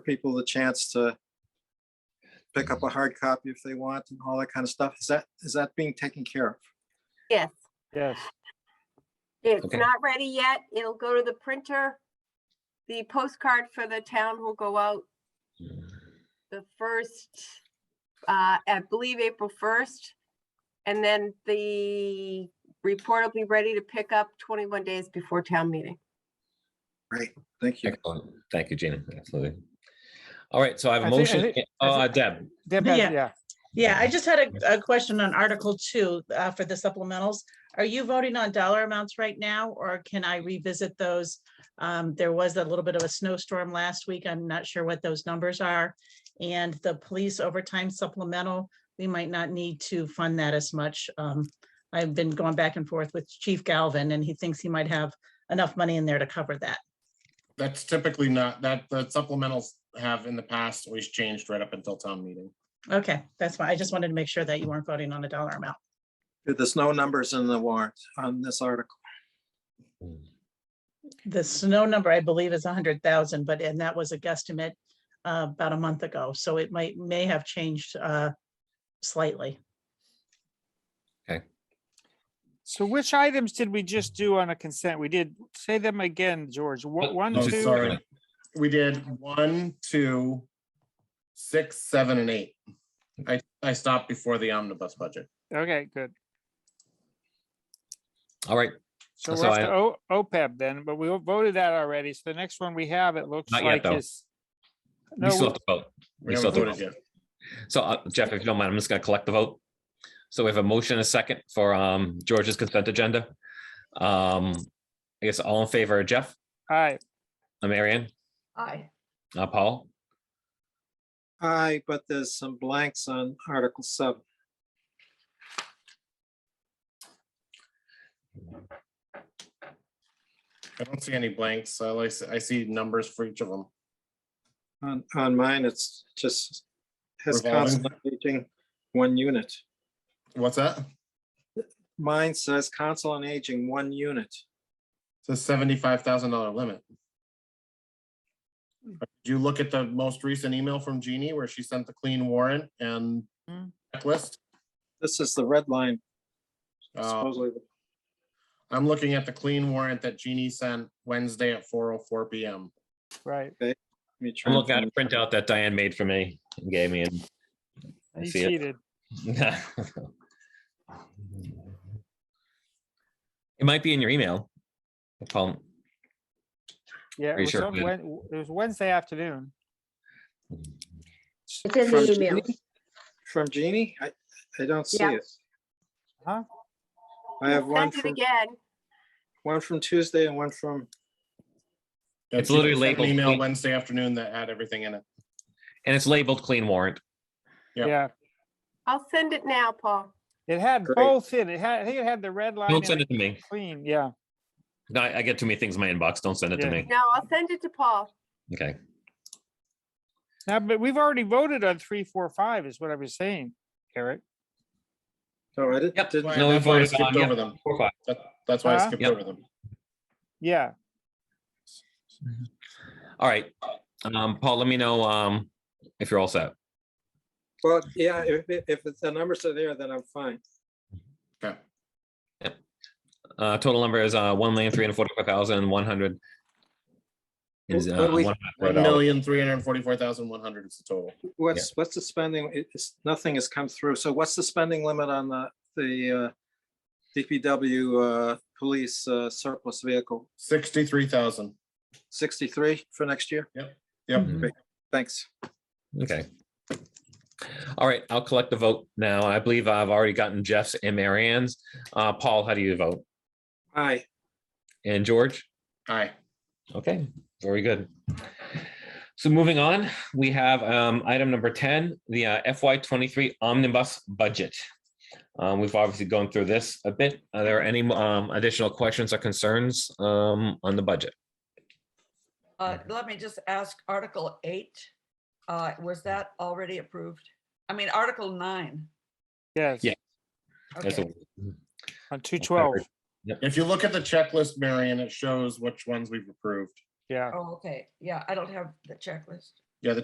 people the chance to pick up a hard copy if they want and all that kind of stuff. Is that, is that being taken care of? Yes, Yes, it's Okay. not ready yet. It'll go to the printer. The postcard for the town will go out the first, uh, I believe April first. And then the report will be ready to pick up twenty-one days before town meeting. Great, thank you. Excellent. Thank you, Gina. Absolutely. All right, so I have a I think- I motion. think- I Oh, uh, think- Deb, Deb has- Yeah. yeah, Yeah, I just had a, a question on Article Two, uh, for the supplementals. Are you voting on dollar amounts right now, or can I revisit those? Um, there was a little bit of a snowstorm last week. I'm not sure what those numbers are. And the police overtime supplemental, we might not need to fund that as much. Um, I've been going back and forth with Chief Galvin, and he thinks he might have enough money in there to cover that. That's typically not, that, the supplementals have in the past always changed right up until town meeting. Okay, that's why I just wanted to make sure that you weren't voting on a dollar amount. There's no numbers in the warrant on this article. The snow number, I believe, is hundred thousand, but, and that was a guesstimate uh, about a month ago, so it might, may have changed uh, slightly. so which items did we just do on a consent? We did, say them again, George, Uh, Wha- one, Oh, no, two, sorry. We did one, two, six, seven, and eight. I, I stopped before the omnibus budget. okay, good. all right, So So we're up I- to O- OPEB then, but we voted that already, so the next one we have, it looks Not yet, like though. is. we No, still have we- to vote. We We still haven't have voted to vote. yet. So uh, Jeff, if you don't mind, I'm just gonna collect the vote. So we have a motion, and a second for um George's consent agenda. Um, I guess all in favor, of Jeff, all right, uh, Marianne, Aye. uh, Paul, Aye, but there's some blanks on Article seven. I don't see any blanks. so I see, I see numbers for each of them. On, on mine, it's just has Revolving. council on aging one unit. What's that? Mine says council on aging one unit. It's a seventy-five thousand dollar limit. Did you look at the most recent email from Jeannie where she sent the clean warrant and Hmm. checklist? This is the red line Oh. Uh, supposedly. I'm looking at the clean warrant that Jeannie sent Wednesday at four oh four PM. right. Let me I'm try and looking at a find- printout that Diane made for me and gave me and. I You see it. cheated. It might be in your email. Paul, Yeah, it Pretty was sure on we- Wed- it was Wednesday afternoon. It's in From the email. Jeannie? From Jeannie? I, I don't see Yeah. it. Huh? I have one Send it from, again. one from Tuesday and one from, Yeah, It's she literally sent an labeled Email clean. Wednesday afternoon that had everything in it. and it's labeled clean warrant. Yep. Yeah, I'll send it now, Paul. it had Great. both in, it had, I think it had the red line Don't and send the it to me. clean, yeah. No, I I get too many things in my inbox. Don't send it to Yeah. me. No, I'll send it to Paul. Okay. Now, but we've already voted on three, four, five is what I was saying, Eric. oh, I did- Yep. didn't, Why- No, we that's why I voted skipped on, yeah, over them. four, five. That, that's why I Huh? skipped Yep. over them. Yeah, All right. Um, Paul, let me know, um, if you're all set. well, yeah, if, if- if it's- the numbers are there, then I'm fine. Okay. Uh, total number is, uh, one million, three hundred forty-five thousand, one hundred. Is, uh, What do we- one hundred One dollars. million, three hundred and forty-four thousand, one hundred is the total. What's, what's the spending? It- It's, nothing has come through. So what's the spending limit on the, the uh, DPW uh, police uh, surplus vehicle? Sixty-three thousand. 63 for next year? Yep. Mhm. Thanks. Okay. All right, I'll collect the vote now. I believe I've already gotten Jeff's and Marianne's. Uh, Paul, how do you vote? Aye. And George? Aye. Okay, very good. So moving on, we have um, item number 10, the uh, FY '23 omnibus budget. Um, We've obviously gone through this a bit. Are there any um, additional questions or concerns um, on the budget? Uh, let me just ask, Article eight, uh, was that already approved? I mean, Article nine. yes, Yeah. That's Okay, all. on two twelve, If you look at the checklist, Marion, it shows which ones we've approved. yeah. oh, okay, yeah, I don't have the checklist.